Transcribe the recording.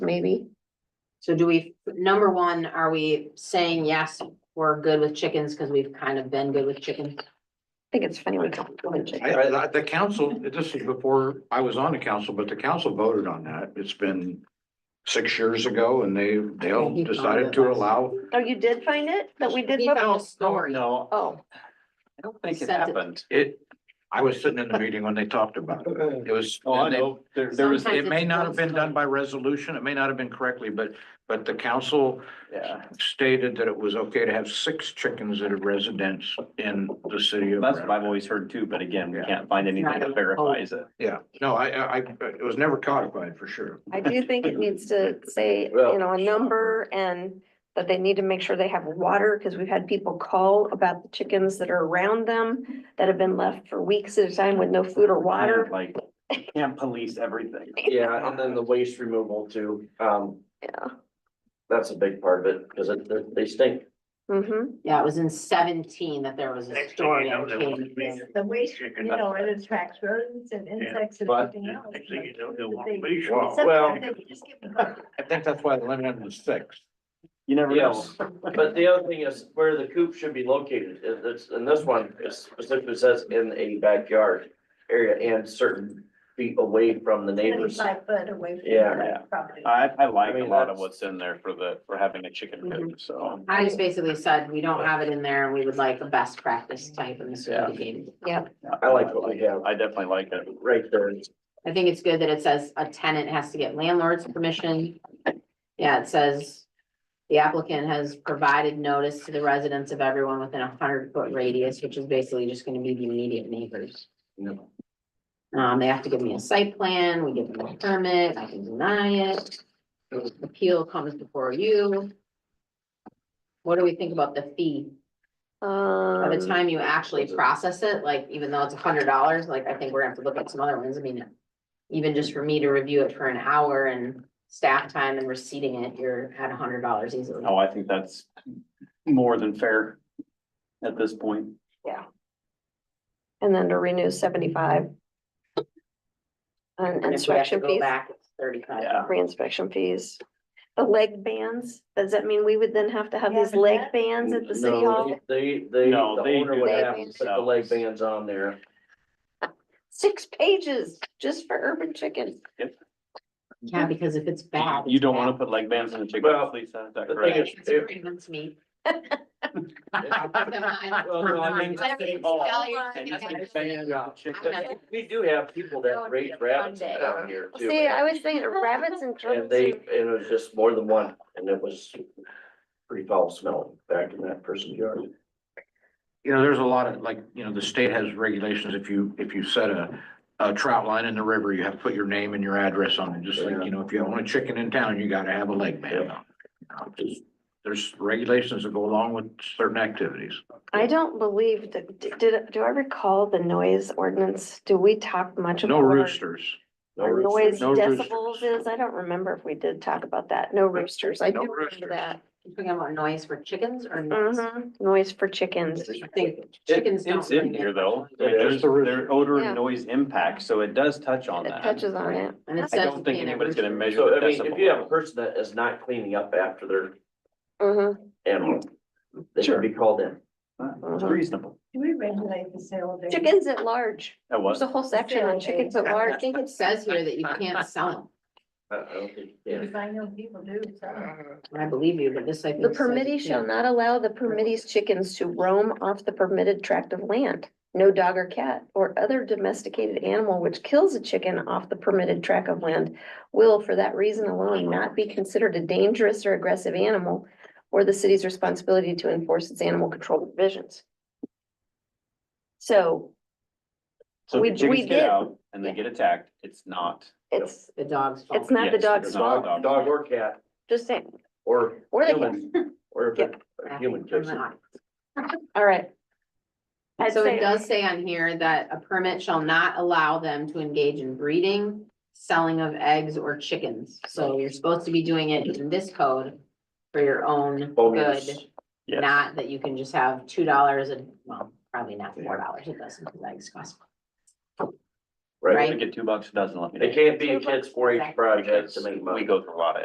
maybe. So do we, number one, are we saying yes, we're good with chickens because we've kind of been good with chickens? I think it's funny when. people go and check. I, I, I- the council, this is before I was on the council, but the council voted on that. It's been six years ago and they, they all He found decided it to last- allow. Oh, you did find it? That we did? He vote? found a story. No, Oh, I don't think it Sent it. happened. It, I was sitting in the meeting when they talked about it. It was. Oh, I know, there, there was, Sometimes It may it's not one have been done story. by resolution. It may not have been correctly, but, but the council yeah, stated that it was okay to have six chickens at a residence in the city of. that's what I've Brandon. always heard too, but again, we Yeah. can't find anything that verifies it. Yeah, no, I, I, I- it was never codified for sure. I do think it needs to say, Well- you know, a number and that they need to make sure they have water, because we've had people call about the chickens that are around them that have been left for weeks at a time with no food or Kind water. of Like, can't police everything. Yeah, and then the waste removal too, um, Yeah. that's a big part of it, because it, they- they stink. Mm. Mm-hmm. Yeah, it was in seventeen that there was a story on chickens. The waste, you know, it attracts rodents and insects and but everything else. Next thing you know, they'll want They- to leash. Wow. Sometimes they just give them- I think that's why the limit was six. You never know. Yes, but the other thing is where the coop should be located, it- it's, and this one it specifically says in a backyard area and certain feet away from the neighbors. Seventy-five foot away from Yeah. the property. I, I like I a mean, lot of that's- what's in there for the, for having a chicken coop, so. I just basically said, we don't have it in there and we would like a best practice type in this Yeah. game. I like what we have. I definitely like it. Right there, I think it's good that it says a tenant has to get landlord's permission. Yeah, it says the applicant has provided notice to the residents of everyone within a hundred foot radius, which is basically just gonna be the immediate neighbors. No. Um, they have to give me a site plan, we give them a permit, I can deny it. Appeal comes before you. What do we think about the fee? By the Um, time you actually process it, like even though it's a hundred dollars, like I think we're gonna have to look at some other ones, I mean. Even just for me to review it for an hour and staff time and receipting it, you're at a hundred dollars easily. Oh, I think that's more than fair at this point. and then to renew seventy-five. And And if we have to inspection go fees, back, it's thirty-five. Yeah. re-inspection fees. The leg bands, does that mean we would then have to have Yeah, these but leg that- bands at the city hall? They, they, the No, they owner do would that have to put the leg bands on there. Six pages just for urban chickens. Yeah, because if it's bad. You don't wanna put leg bands in the chicken, Well, please, is that the thing correct? is- It's agreements me. Well, no, I mean, uh, We do have people that raise rabbits down here too. See, I was thinking rabbits and And turtles. they, and it was just more than one, and it was pretty foul smelling back in that person's yard. you know, there's a lot of, like, you know, the state has regulations, if you, if you set a, a trout line in the river, you have to put your name and your address on it, just like, you know, if you own a chicken in town, you gotta have a leg man. on. You know, just- There's regulations that go along with certain activities. I don't believe that, d- did, do I recall the noise ordinance? Do we talk much about? No what our- roosters. No Our noise roosters. no roosters. decibels is, I don't remember if we did talk about that. No roosters, I No do remember roosters. that. Talking about noise for chickens or noise? Mhm, Noise for chickens. I think chickens don't. It's in really here get- though. I Yeah, mean, There's, it's the roof. there are odor Yeah. and noise impacts, so it does touch on It that. touches on it. And it I says don't think in there- anybody's gonna measure So, the I mean, if you have a decibel. person that is not cleaning up after their Mhm, animal, they should be called in. It's reasonable. Do we regulate the sale of? Chickens at large. That There's was, a whole section on chickens at I large. think it says here that you can't sell them. I I don't think, yeah. Because I know people do, so. I believe you, but this I think. The says you permittee shall can't. not allow the permittee's chickens to roam off the permitted tract of land. No dog or cat or other domesticated animal which kills a chicken off the permitted tract of land will, for that reason alone, not be considered a dangerous or aggressive animal or the city's responsibility to enforce its animal control provisions. So so we- if the we chickens did. get out and they Yeah. get attacked, it's not. it's, The dog's fault. it's not the Oh, Yes, dog's it's not the fault, dog's Dog or cat, just saying, or or the cat, human, or if it- a human From kicks the it. audience. all right. I'd So say- it does say on here that a permit shall not allow them to engage in breeding, selling of eggs or chickens. So you're supposed to be doing it in this code for your own Bonus. good, Yes. not that you can just have two dollars and, well, probably not four dollars, it doesn't, because eggs cost. right? Right. They get two bucks a dozen, let me. It can't be a kid's four H project to make money. We go through a lot of